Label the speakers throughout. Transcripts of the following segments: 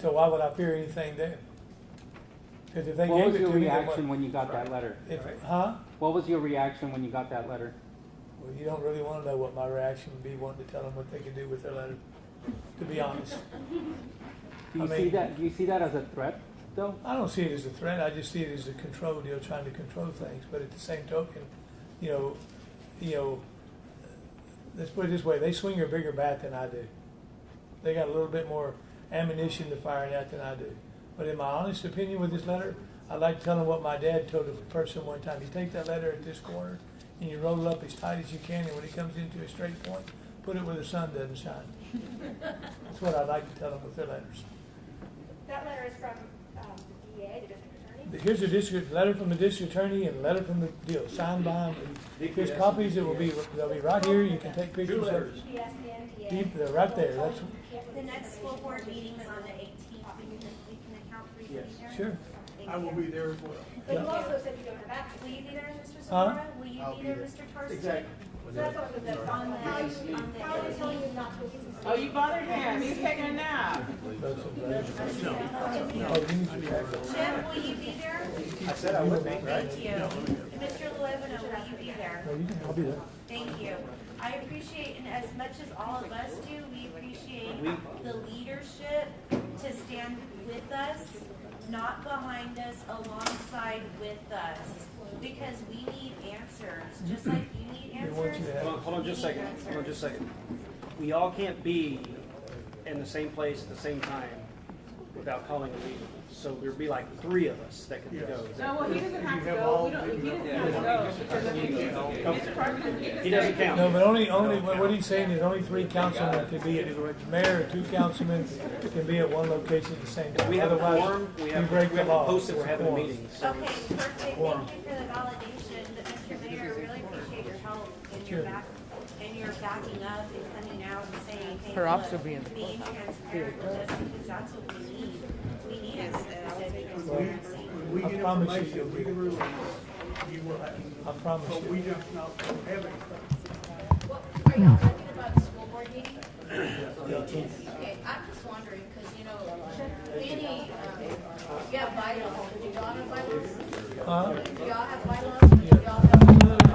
Speaker 1: So why would I fear anything there? Because if they
Speaker 2: What
Speaker 1: gave
Speaker 2: was
Speaker 1: it to
Speaker 2: your
Speaker 1: me, then what?
Speaker 2: reaction when you got that letter?
Speaker 1: If, huh?
Speaker 2: What was your reaction when you got that letter?
Speaker 1: Well, you don't really want to know what my reaction would be, wanting to tell them what they could do with their letter, to be honest.
Speaker 2: Do you
Speaker 1: I
Speaker 2: see
Speaker 1: mean-
Speaker 2: that, do you see that as a threat, though?
Speaker 1: I don't see it as a threat. I just see it as a control deal, trying to control things. But at the same token, you know, you know, let's put it this way: they swing a bigger bat than I do. They got a little bit more ammunition to fire at than I do. But in my honest opinion, with this letter, I like telling what my dad told a person one time. You take that letter at this corner and you roll it up as tight as you can, and when it comes into a straight point, put it where the sun doesn't shine. That's what I like to tell them with their letters.
Speaker 3: That letter is from um, the DA, the district attorney.
Speaker 1: Here's a district, letter from the district attorney and a letter from the deal, signed by him. There's copies that will be, they'll be right here, you can take pictures of.
Speaker 3: Yes, and DA.
Speaker 1: Deep, they're right there, that's,
Speaker 4: The next school board meeting is on the eighteenth, we can, we can account for you being
Speaker 5: Yes.
Speaker 4: there.
Speaker 1: sure.
Speaker 4: Thank
Speaker 5: I will
Speaker 4: you.
Speaker 5: be there as well.
Speaker 3: But you
Speaker 1: Yeah.
Speaker 3: also said you don't have access.
Speaker 4: Will you be there, Mr.
Speaker 1: Huh?
Speaker 4: Zamora? Will you
Speaker 5: I'll
Speaker 4: be
Speaker 5: be
Speaker 4: there,
Speaker 5: there.
Speaker 4: Mr. Tarsi?
Speaker 5: Exactly.
Speaker 4: So that's what was that's on the, on
Speaker 3: How are they
Speaker 4: the
Speaker 3: telling
Speaker 4: eighteenth.
Speaker 3: you not to? access?
Speaker 6: Oh, you bothered him. He's taking a nap.
Speaker 1: That's a letter. Oh, you need to pack that.
Speaker 4: Jim, will you be there?
Speaker 5: I said I would be, right?
Speaker 4: Thank you. Mr. Levino, will you be there?
Speaker 1: No, you can, I'll be there.
Speaker 4: Thank you. I appreciate, and as much as all of us do, we appreciate the leadership to stand with us, not behind us, alongside with us, because we need answers, just like you need
Speaker 1: They want you to
Speaker 4: answers.
Speaker 1: have-
Speaker 7: Hold on, hold on just a second, hold on just a second. We all can't be in the same place at the same time without calling a meeting. So there'd be like three of us that could go.
Speaker 6: No, well, he doesn't have to go. We don't, he doesn't have to go because I mean, Mr. Parker doesn't get to
Speaker 7: He doesn't
Speaker 6: say.
Speaker 1: No,
Speaker 7: count.
Speaker 1: but only, only, what what he's saying is only three councilmen can be, at the mayor or two councilmen can be at one location at the same time.
Speaker 7: We have a
Speaker 1: Otherwise,
Speaker 7: quorum, we
Speaker 1: we
Speaker 7: have, we
Speaker 1: break the
Speaker 7: have
Speaker 1: law.
Speaker 7: posted, we're having a
Speaker 1: Quorum.
Speaker 7: meeting, so.
Speaker 4: Okay, perfect, thank you for the validation, but Mr. Mayor, really appreciate your help and your
Speaker 1: Sure.
Speaker 4: back, and your backing up and coming out and saying, hey,
Speaker 6: Her ops
Speaker 4: look,
Speaker 6: will be in the
Speaker 4: being transparent with us, because that's what we need. We need answers, transparency.
Speaker 5: When we
Speaker 1: I
Speaker 5: get
Speaker 1: promise you you'll
Speaker 5: information,
Speaker 1: be
Speaker 5: we
Speaker 1: there.
Speaker 5: will, you will have, it.
Speaker 1: I promise
Speaker 5: but we
Speaker 1: you.
Speaker 5: just not have it.
Speaker 8: What, are y'all talking about the school board meeting? Okay, I'm just wondering, because, you know, any, um, you have bylaws, do y'all have bylaws?
Speaker 1: Huh?
Speaker 8: Do y'all have bylaws, do y'all have meetings?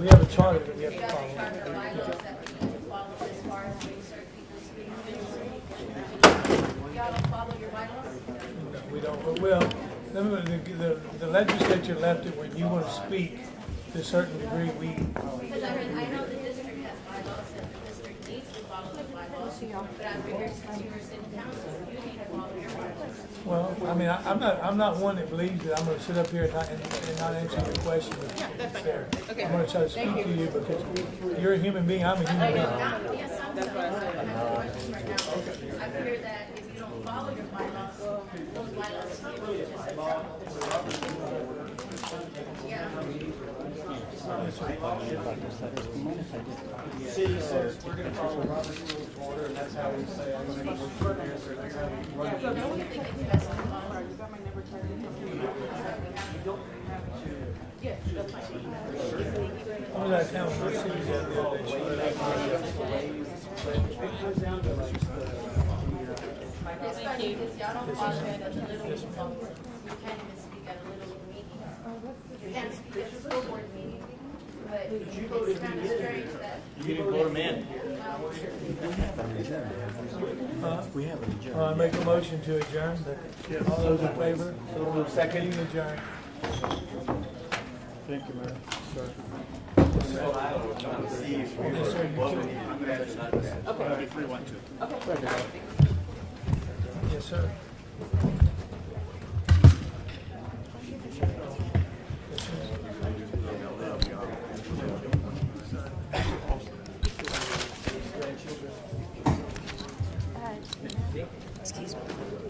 Speaker 1: We have a charter that we have
Speaker 8: Do
Speaker 1: to
Speaker 8: y'all have
Speaker 1: follow.
Speaker 8: charter bylaws that we need to follow as far as being certain people's meetings? Y'all don't follow your bylaws?
Speaker 1: No, We don't, but well, remember, the, the- the legislature left it when you want to speak to a certain degree, we,
Speaker 8: Because I mean, I know the district has bylaws and the district needs to follow the bylaws, but I figure since you're sitting council, you need to follow your bylaws.
Speaker 1: well, I mean, I, I'm not, I'm not one that believes that I'm gonna sit up here and not, and and not answer your question. that's fair. I'm gonna try to speak to you because you're a human being, I'm a human being.
Speaker 8: Yes, I'm, I'm, I'm questions right now. I figure that if you don't follow your bylaws, those bylaws can put you in trouble. Yeah.
Speaker 5: City says we're gonna follow Robert's rules of order, and that's how we say I'm gonna be first, or that's how we run.
Speaker 8: So don't you think it's best to follow?
Speaker 1: I was out of town for city the other day, so
Speaker 5: It comes down to like the,
Speaker 8: It's funny, because y'all don't follow it at the little, meetings. you can't even speak at a little meeting. You can't speak at a school board meeting, but it's kind of strange that.
Speaker 7: You didn't vote him in.
Speaker 1: Uh, I make a motion to adjourn. All those in favor? Second. Adjourn. Yes, sir, you too. Yes, sir.